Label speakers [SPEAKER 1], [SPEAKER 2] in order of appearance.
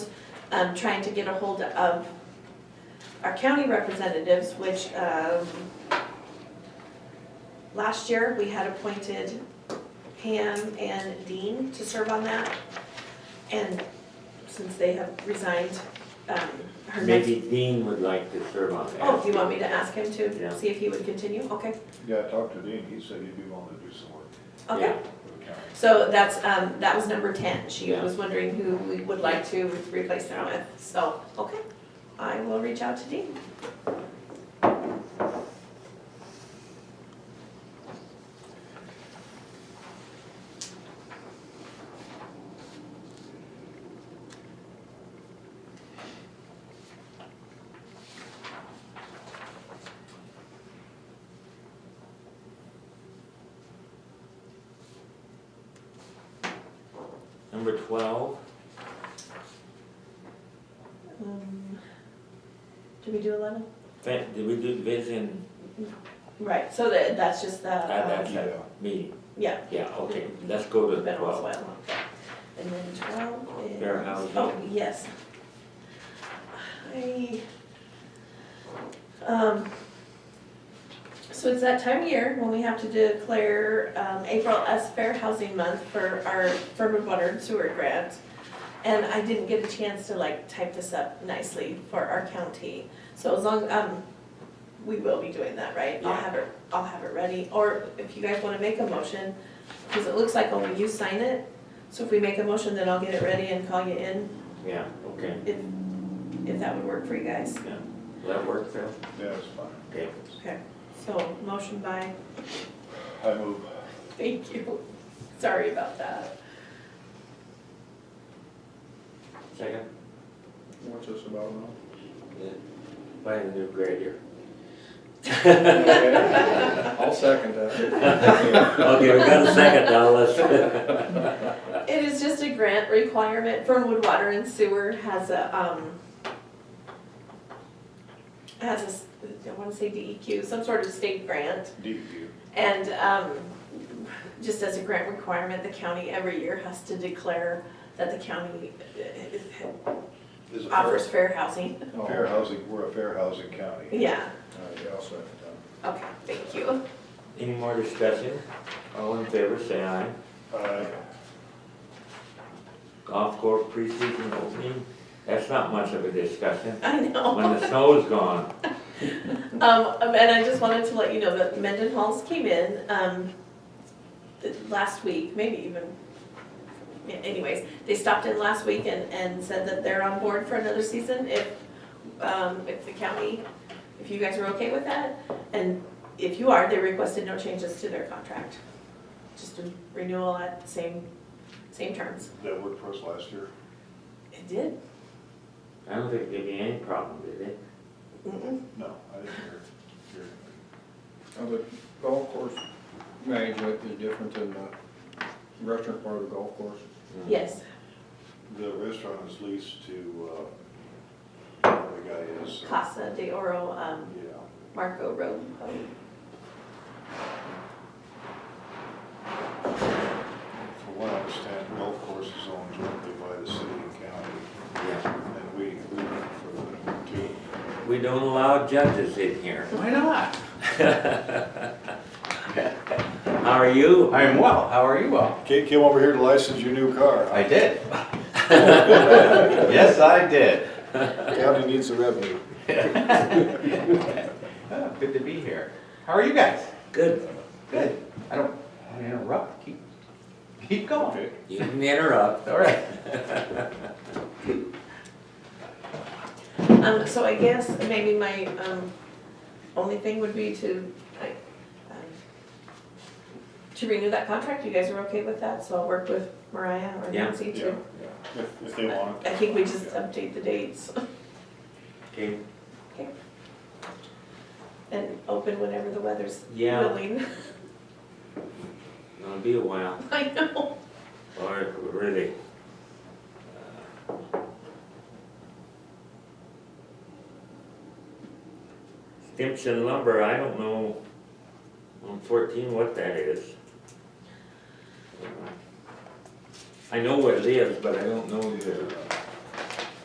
[SPEAKER 1] um, trying to get a hold of our county representatives, which, um, last year, we had appointed Pam and Dean to serve on that. And since they have resigned, um, her next.
[SPEAKER 2] Maybe Dean would like to serve on that.
[SPEAKER 1] Oh, you want me to ask him
[SPEAKER 2] Yeah.
[SPEAKER 1] to, see if he would continue? Okay,
[SPEAKER 3] Yeah, I talked to Dean, he said he'd be willing to do some work
[SPEAKER 1] okay.
[SPEAKER 2] Yeah.
[SPEAKER 3] for the county.
[SPEAKER 1] So that's, um, that was number ten. She
[SPEAKER 2] Yeah.
[SPEAKER 1] was wondering who we would like to replace them with, so, okay. I will reach out to Dean.
[SPEAKER 2] Number twelve,
[SPEAKER 1] Um, Did we do eleven?
[SPEAKER 2] fa- did we do vision
[SPEAKER 1] Right, so that, that's just the,
[SPEAKER 2] at
[SPEAKER 1] um,
[SPEAKER 2] that
[SPEAKER 3] Yeah.
[SPEAKER 2] meeting?
[SPEAKER 1] yeah,
[SPEAKER 2] Yeah, okay, let's go to
[SPEAKER 1] mineral
[SPEAKER 2] twelve.
[SPEAKER 1] oil. And then twelve is.
[SPEAKER 2] Fair housing.
[SPEAKER 1] Oh, yes. I, um, so it's that time of year when we have to declare, um, April as Fair Housing Month for our Furman Water and Sewer Grant. And I didn't get a chance to like type this up nicely for our county. So as long, um, we will be doing that, right? I'll
[SPEAKER 2] Yeah.
[SPEAKER 1] have it, I'll have it ready, or if you guys wanna make a motion, cause it looks like only you sign it. So if we make a motion, then I'll get it ready and call you in,
[SPEAKER 2] Yeah, okay,
[SPEAKER 1] if, if that would work for you guys.
[SPEAKER 2] will that work, Phil?
[SPEAKER 3] Yeah, it's fine.
[SPEAKER 2] Okay,
[SPEAKER 1] Okay, so motion by,
[SPEAKER 3] I move.
[SPEAKER 1] thank you, sorry about that.
[SPEAKER 2] second,
[SPEAKER 3] What's this about now?
[SPEAKER 2] Yeah. buy a new grader.
[SPEAKER 4] I'll second that.
[SPEAKER 2] Okay, we got a second now, let's,
[SPEAKER 1] It is just a grant requirement, Fernwood Water and Sewer has a, um, has a, s- I wanna say DEQ, some sort of state grant.
[SPEAKER 3] DEQ.
[SPEAKER 1] And um, just as a grant requirement, the county every year has to declare that the county uh,
[SPEAKER 3] Is it
[SPEAKER 1] offers
[SPEAKER 3] fair?
[SPEAKER 1] fair housing.
[SPEAKER 3] Oh. Fair housing, we're a fair housing county.
[SPEAKER 1] Yeah,
[SPEAKER 3] All right, yeah, I'll second that.
[SPEAKER 1] okay, thank you.
[SPEAKER 2] any more discussion? All in favor, say aye.
[SPEAKER 3] Aye.
[SPEAKER 2] Golf course preseason opening, that's not much of a discussion.
[SPEAKER 1] I
[SPEAKER 2] When
[SPEAKER 1] know.
[SPEAKER 2] the snow's gone,
[SPEAKER 1] Um, And I just wanted to let you know that Mendenhall's came in um, th- last week, maybe even, yeah, anyways, they stopped in last week and, and said that they're on board for another season if, um, if the county, if you guys are okay with that. And if you are, they requested no changes to their contract, just a renewal at the same, same terms.
[SPEAKER 3] That worked for us last year.
[SPEAKER 1] It did?
[SPEAKER 2] I don't think there'd be any problem, did it?
[SPEAKER 1] Mm-mm.
[SPEAKER 3] No, I didn't hear, hear anything.
[SPEAKER 4] Now, the golf course management is different than the restaurant part of the golf course.
[SPEAKER 1] Yes,
[SPEAKER 3] The restaurant is leased to, uh, the guy is. uh,
[SPEAKER 1] Casa de Oro, um,
[SPEAKER 3] Yeah.
[SPEAKER 1] Marco Road.
[SPEAKER 3] From what I understand, golf course is owned jointly by the city and county,
[SPEAKER 2] Yeah.
[SPEAKER 3] and we, we rent for the two.
[SPEAKER 2] We don't allow judges in here.
[SPEAKER 5] Why not?
[SPEAKER 2] How are you?
[SPEAKER 5] I am well. How are you well?
[SPEAKER 3] Kate came over here to license your new car.
[SPEAKER 5] I did. Yes, I did.
[SPEAKER 3] County needs the revenue.
[SPEAKER 5] Oh, Good to be here. How are you guys?
[SPEAKER 2] Good.
[SPEAKER 5] Good. I don't, I don't interrupt. Keep, keep
[SPEAKER 1] Oh,
[SPEAKER 5] going.
[SPEAKER 3] Okay.
[SPEAKER 2] You can interrupt.
[SPEAKER 5] All right.
[SPEAKER 1] Um, so I guess maybe my, um, only thing would be to, I, um, to renew that contract, you guys are okay with that, so I'll work with Mariah or
[SPEAKER 2] Yeah.
[SPEAKER 1] Nancy
[SPEAKER 3] Yeah,
[SPEAKER 1] to.
[SPEAKER 3] yeah, if, if they want it.
[SPEAKER 1] I think we just
[SPEAKER 3] Yeah.
[SPEAKER 1] update the dates
[SPEAKER 2] Okay.
[SPEAKER 1] and open whenever the weather's
[SPEAKER 2] Yeah.
[SPEAKER 1] willing.
[SPEAKER 2] It'll be a while,
[SPEAKER 1] I know,
[SPEAKER 2] or really. Stimson lumber, I don't know on fourteen what that is. I know where it is, but I don't know the